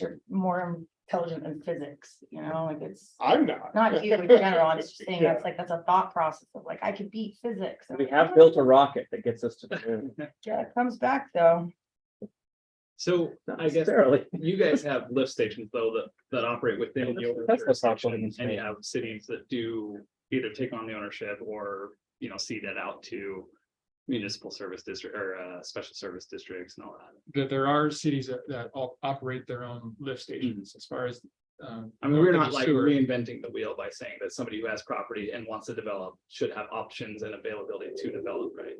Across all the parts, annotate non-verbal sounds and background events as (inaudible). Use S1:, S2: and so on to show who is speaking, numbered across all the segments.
S1: you're more intelligent than physics, you know, like it's
S2: Uh,
S3: I'm not.
S1: not you
S2: (laughs)
S1: in general, I'm just saying that's like, that's a thought process of like, I could beat physics.
S2: We have built a rocket that gets us to the
S4: (laughs)
S2: moon.
S1: Yeah, it comes back though.
S4: So
S2: Not
S4: I guess
S2: necessarily.
S4: you guys have lift stations though that that operate within
S2: Yeah,
S4: your
S2: that's- that's not
S4: jurisdiction,
S2: what it
S4: and you
S2: means.
S4: have cities that do either take on the ownership or, you know, see that out to municipal service district or uh special service districts and all that.
S5: that there are cities that, that all operate their own lift stations as far as. um,
S4: I mean, we're
S5: Northridge
S4: not like
S5: Sewer.
S4: reinventing the wheel by saying that somebody who has property and wants to develop should have options and availability to develop, right?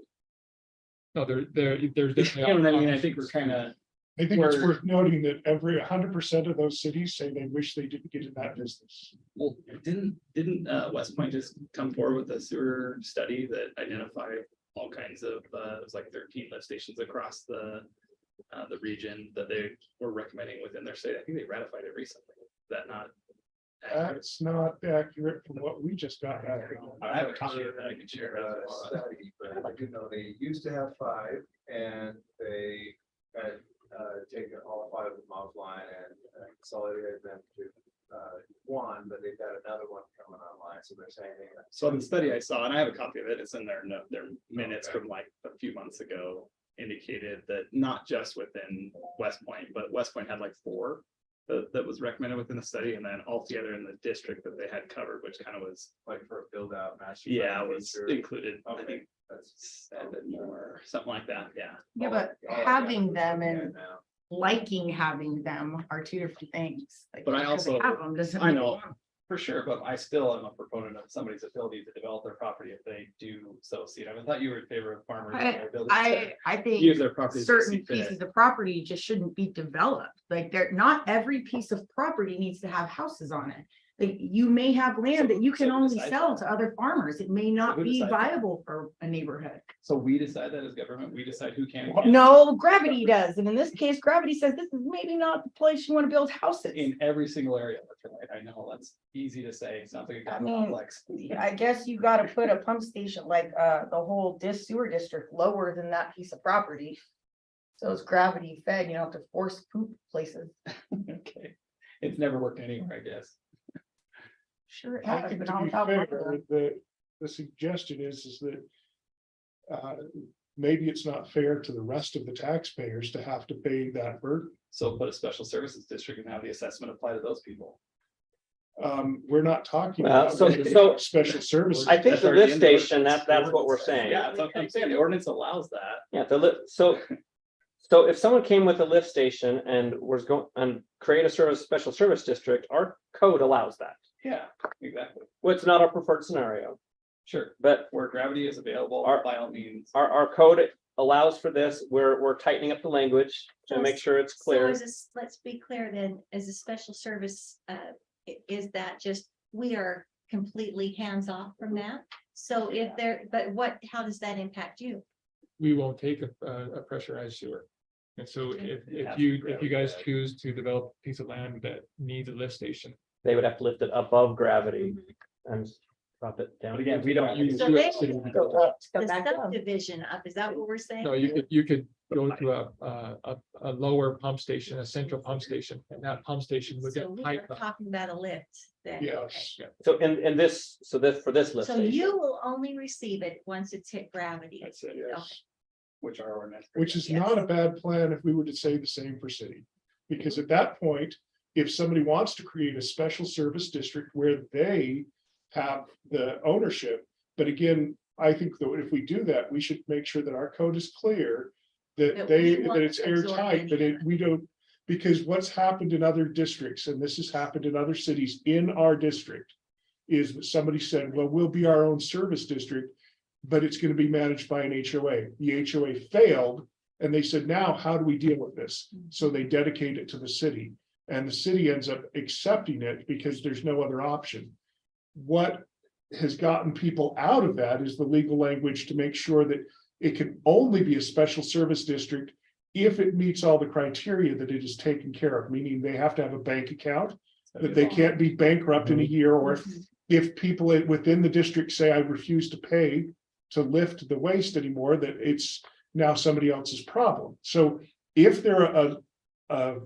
S5: No, there, there, there's.
S4: (laughs) You
S5: definitely
S4: know what I mean? I
S5: options.
S4: think we're kind of,
S3: I think it's
S4: Where-
S3: worth noting that every hundred percent of those cities say they wish they didn't get in that business.
S4: well, didn't didn't uh West Point just come forward with a sewer study that identified all kinds of, uh, it was like thirteen lift stations across the uh, the region that they were recommending within their state. I think they ratified it recently. Is that not? accurate?
S3: That's not accurate from what we just got. accurate.
S4: I have a copy of that I can share.
S6: uh, study, but like, you know, they used to have five and they had uh taken all five of them offline and uh, consolidated them to uh one, but they've got another one coming online, so they're saying. they-
S4: So the study I saw, and I have a copy of it, it's in their no their minutes from like a few months ago. Indicated that not just within West Point, but West Point had like four. That that was recommended within the study and then altogether in the district that they had covered, which kind of was,
S6: Like for a build out master. plan
S4: yeah, was
S6: feature.
S4: included. I
S6: Okay,
S4: think
S6: that's.
S4: seven more, something like that, yeah.
S1: Yeah,
S6: all I-
S1: but
S6: all I got
S1: having
S6: was
S1: them
S6: looking at
S1: and
S6: now.
S1: liking having them are two different things. Like,
S4: But I
S1: just 'cause they
S4: also-
S1: have 'em doesn't
S4: I
S1: mean-
S4: know, for sure, but I still am a proponent of somebody's ability to develop their property if they do so see it. I thought you were in favor of farmers. and their ability to
S7: I, I
S4: Use
S7: think
S4: their property.
S7: certain pieces of property just shouldn't be developed, like they're, not every piece of property needs to have houses on it. Like you may have land that you can
S4: So who
S7: only
S4: decides
S7: sell
S4: that?
S7: to other farmers, it may not
S4: who
S7: be
S4: decides that?
S7: viable for a neighborhood.
S4: So we decide that as government, we decide who can. and can't.
S7: No, gravity does, and in this case, gravity says this is maybe not the place you wanna build houses.
S4: In every single area, that's right. I know, that's easy to say, it sounds like a
S1: I mean,
S4: complex. (laughs)
S1: Yeah, I guess you gotta put a pump station like, uh, the whole dis sewer district lower than that piece of property. So it's gravity fed, you don't have to force poop places.
S4: Okay, it's never worked anywhere, I guess.
S1: Sure. it
S3: I
S1: has,
S3: think
S1: but
S3: to
S1: not
S3: be
S1: without
S3: fair,
S1: water.
S3: The, the suggestion is, is that. Uh, maybe it's not fair to the rest of the taxpayers to have to pay that burden.
S4: So put a special services district and have the assessment apply to those people.
S3: Um, we're not talking.
S2: Well,
S3: about
S2: so- so-
S3: Special services.
S2: I think
S4: That's
S2: the
S4: already
S2: lift
S4: in the ordinance.
S2: station, that, that's what we're saying.
S4: Yeah, that's what I'm saying, the ordinance allows that.
S2: Yeah, the lift, so, so if someone came with a lift station and was going, and create a service, special service district, our code allows that.
S4: Yeah, exactly.
S2: Well, it's not our preferred scenario,
S4: Sure,
S2: but
S4: where gravity is available,
S2: Our-
S4: by all means.
S2: our, our code allows for this, we're, we're tightening up the language to make
S8: Just-
S2: sure it's
S8: So
S2: clear.
S8: is this, let's be clear then, as a special service, uh, i- is that just, we are completely hands off from
S1: Mm-hmm.
S8: that? So if there, but what, how does that impact you?
S5: We won't take a, a a pressurized sewer. And so if, if you, if you guys choose to develop a piece of land that needs a lift station.
S2: They would have to lift it above gravity
S8: Mm-hmm.
S2: and drop it down.
S4: But again, we don't
S5: you-
S4: use.
S8: So
S5: you-
S8: they-
S5: so-
S8: The
S1: Go back up.
S8: subdivision up, is that what we're saying?
S5: No, you could, you could go to a, a, a, a lower pump station, a central pump station, and that pump station would
S8: So
S5: get
S8: we are
S5: piped up.
S8: talking about a lift then.
S3: Yes.
S2: So in, in this, so this, for this lift
S8: So
S2: station.
S8: you will only receive it once it's hit gravity.
S4: That's it, yes. Which are ordinance.
S3: Which is
S8: Yes.
S3: not a bad plan if we were to say the same for city. Because at that point, if somebody wants to create a special service district where they have the ownership. But again, I think that if we do that, we should make sure that our code is clear. That
S8: That
S3: they,
S8: we
S3: that
S8: won't
S3: it's
S8: absorb
S3: airtight, that it, we don't, because what's happened in other districts, and this has happened in other cities in our district. Is that somebody said, well, we'll be our own service district, but it's gonna be managed by an HOA. The HOA failed. And they said, now how do we deal with this?
S8: Mm-hmm.
S3: So they dedicate it to the city and the city ends up accepting it because there's no other option. What has gotten people out of that is the legal language to make sure that it can only be a special service district if it meets all the criteria that it is taken care of, meaning they have to have a bank account, that they can't be bankrupt in a year, or if, if people i- within the district say, I refuse to pay to lift the waste anymore, that it's now somebody else's problem. So if they're a, a